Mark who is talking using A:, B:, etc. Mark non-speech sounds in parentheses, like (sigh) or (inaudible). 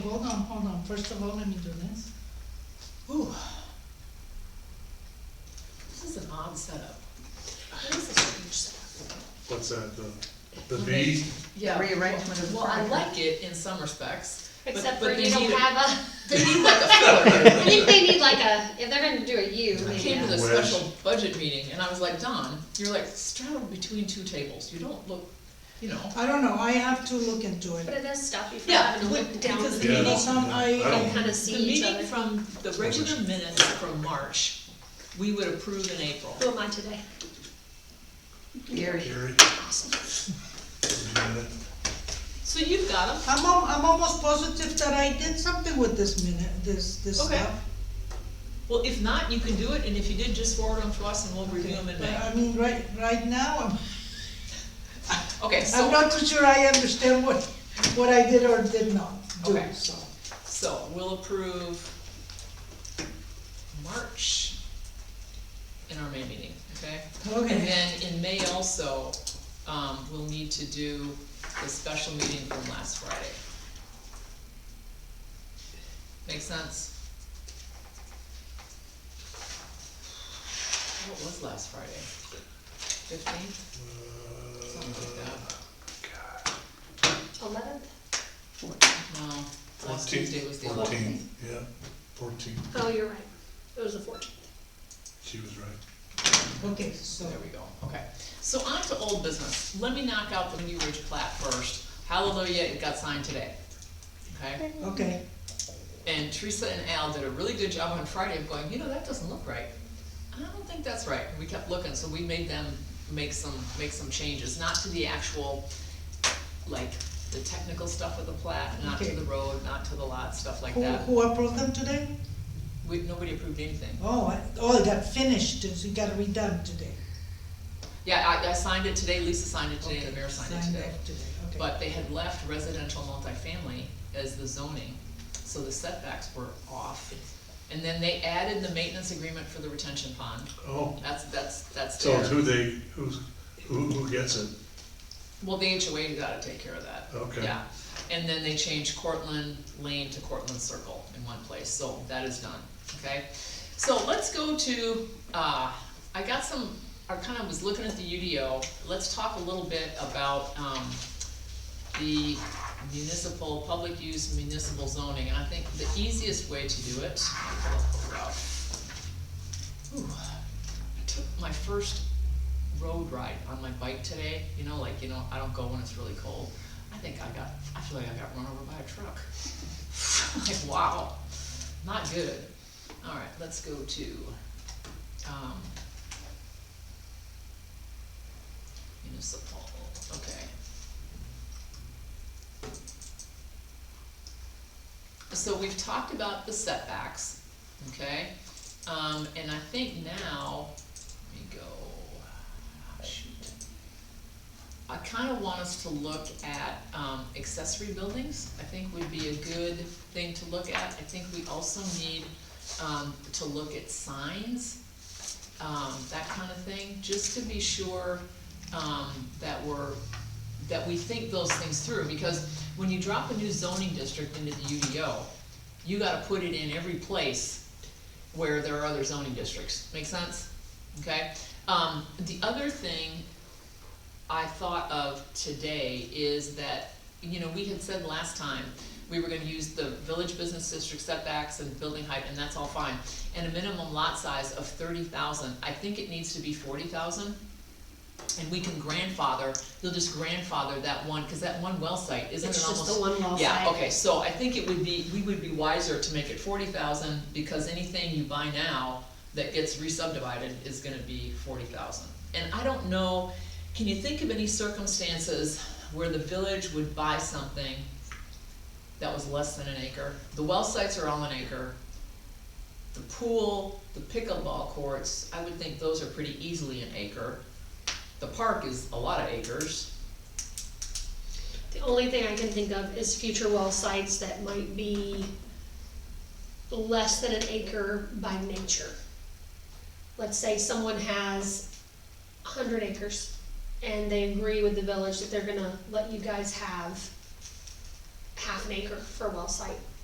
A: Hold on, hold on, first of all, let me do this. Ooh.
B: This is an odd setup. It is a strange setup.
C: What's that, the, the V?
B: Yeah.
D: Rearrangement of the
B: Well, I
D: furniture.
B: like it in some (laughs) respects. but-
E: Except
B: but
E: for
B: they
E: you don't
B: need a- (laughs)
E: have
B: They need like a filler.
E: a, I think they need like a, if they're gonna do a U,
B: I
E: maybe.
B: came to
E: a-
B: the
C: Wedge.
B: special budget meeting and I was like, Don, you're like straddled between two tables. You don't look, you know.
A: I don't know, I have to look into it.
E: But it does stop you from
B: Yeah,
E: having to
B: would-
E: look down
B: because
E: the
A: You
C: Yeah,
A: know,
E: table.
A: some- I-
C: I
E: and
C: don't-
E: kind
B: The
E: of see each
B: meeting
E: other.
B: from the regular minutes from March, we would approve in April.
E: Who am I today?
D: Gary,
C: Gary?
B: So you've got them.
A: I'm, al- I'm almost positive that I did something with this minute, this, this
B: Okay.
A: stuff.
B: Well, if not, you can do it, and if you did, just forward them to us and we'll review them in
A: But
B: May.
A: I mean, right, right now, I'm,
B: Okay,
A: I'm
B: so,
A: not too sure I understand what, what I did or did not do,
B: Okay.
A: so.
B: so we'll approve March in our May meeting, okay? And
A: Okay,
B: then in May also, um, we'll need to do the special meeting from last Friday. Make sense? What was last Friday? Fifteenth, something
C: Uh,
B: like that.
E: Eleventh?
B: No, last
C: Fourteenth.
B: Tuesday was the eleventh.
C: Fourteen, yeah, fourteen,
E: Oh, you're right. It was the fourteenth.
C: she was right.
A: okay, so,
B: There we go, okay. So on to old business. Let me knock out the New Ridge plat first. Hallelujah, it got signed today. Okay?
A: okay,
B: And Teresa and Al did a really good job on Friday of going, you know, that doesn't look right. I don't think that's right. We kept looking, so we made them make some, make some changes, not to the actual, like, the technical stuff of the plat, not to
A: Okay.
B: the road, not to the lot, stuff like
A: who,
B: that.
A: who approved them today?
B: We, nobody approved anything.
A: Oh, I- oh, it got finished, so it got redone today.
B: Yeah, I, I signed it today, Lisa signed it today, and the
A: Okay,
B: mayor signed it
A: signed
B: today.
A: off today, okay.
B: But they had left residential multifamily as the zoning, so the setbacks were off. And then they added the maintenance agreement for the retention pond.
C: Oh,
B: That's, that's, that's
C: so it's
B: there.
C: who they, who's, who, who gets it?
B: Well, the HOA gotta take care of that.
C: Okay.
B: Yeah, and then they changed Cortland Lane to Cortland Circle in one place, so that is done, okay? So let's go to, uh, I got some, I kinda was looking at the UDO, let's talk a little bit about, um, the municipal, public use municipal zoning, and I think the easiest way to do it, I'll pull it out. Ooh, I took my first road ride on my bike today, you know, like, you know, I don't go when it's really cold. I think I got, I feel like I got run over by a truck. (laughs) Like, wow, not good. All right, let's go to, um, municipal, okay. So we've talked about the setbacks, okay? Um, and I think now, let me go, ah, shoot. I kinda want us to look at, um, accessory buildings, I think would be a good thing to look at. I think we also need, um, to look at signs, um, that kinda thing, just to be sure, um, that we're, that we think those things through, because when you drop a new zoning district into the UDO, you gotta put it in every place where there are other zoning districts, make sense? Okay, um, the other thing I thought of today is that, you know, we had said last time, we were gonna use the village business district setbacks and building height, and that's all fine. And a minimum lot size of thirty thousand, I think it needs to be forty thousand. And we can grandfather, they'll just grandfather that one, cause that one well site, isn't it
E: It's
B: almost?
E: just the one wall
B: Yeah,
E: side.
B: okay, so I think it would be, we would be wiser to make it forty thousand, because anything you buy now that gets re-subdivided is gonna be forty thousand. And I don't know, can you think of any circumstances where the village would buy something that was less than an acre? The well sites are all an acre. The pool, the pickleball courts, I would think those are pretty easily an acre. The park is a lot of acres.
E: The only thing I can think of is future well sites that might be less than an acre by nature. Let's say someone has hundred acres and they agree with the village that they're gonna let you guys have half an acre for a well site.